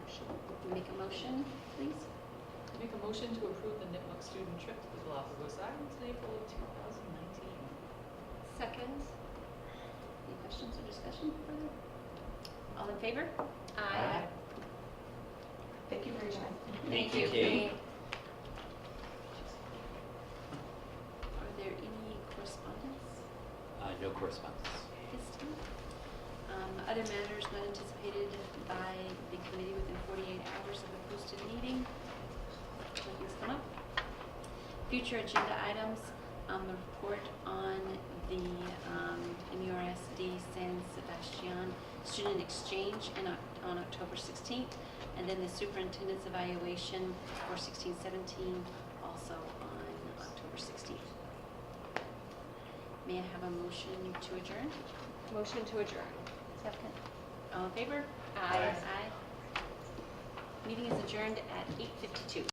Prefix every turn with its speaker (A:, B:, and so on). A: Make a motion, please.
B: Make a motion to approve the Nipmuc student trip to the Galapagos Islands in April of 2019.
A: Second. Any questions or discussion further? All in favor?
C: Thank you very much.
A: Thank you.
D: Kate.
A: Are there any correspondence
D: Uh, no correspondence.
A: this time? Um, Other matters not anticipated by the committee within 48 hours of the posted meeting? Nothing's come up? Future agenda items, um, the report on the um, MURSD San Sebastian Student Exchange in Oc- on October 16th, and then the superintendent's evaluation for 16-17 also on October 16th. May I have a motion to adjourn?
C: Motion to adjourn.
A: Second. All in favor?
D: Aye.
A: Aye. Meeting is adjourned at 8:52.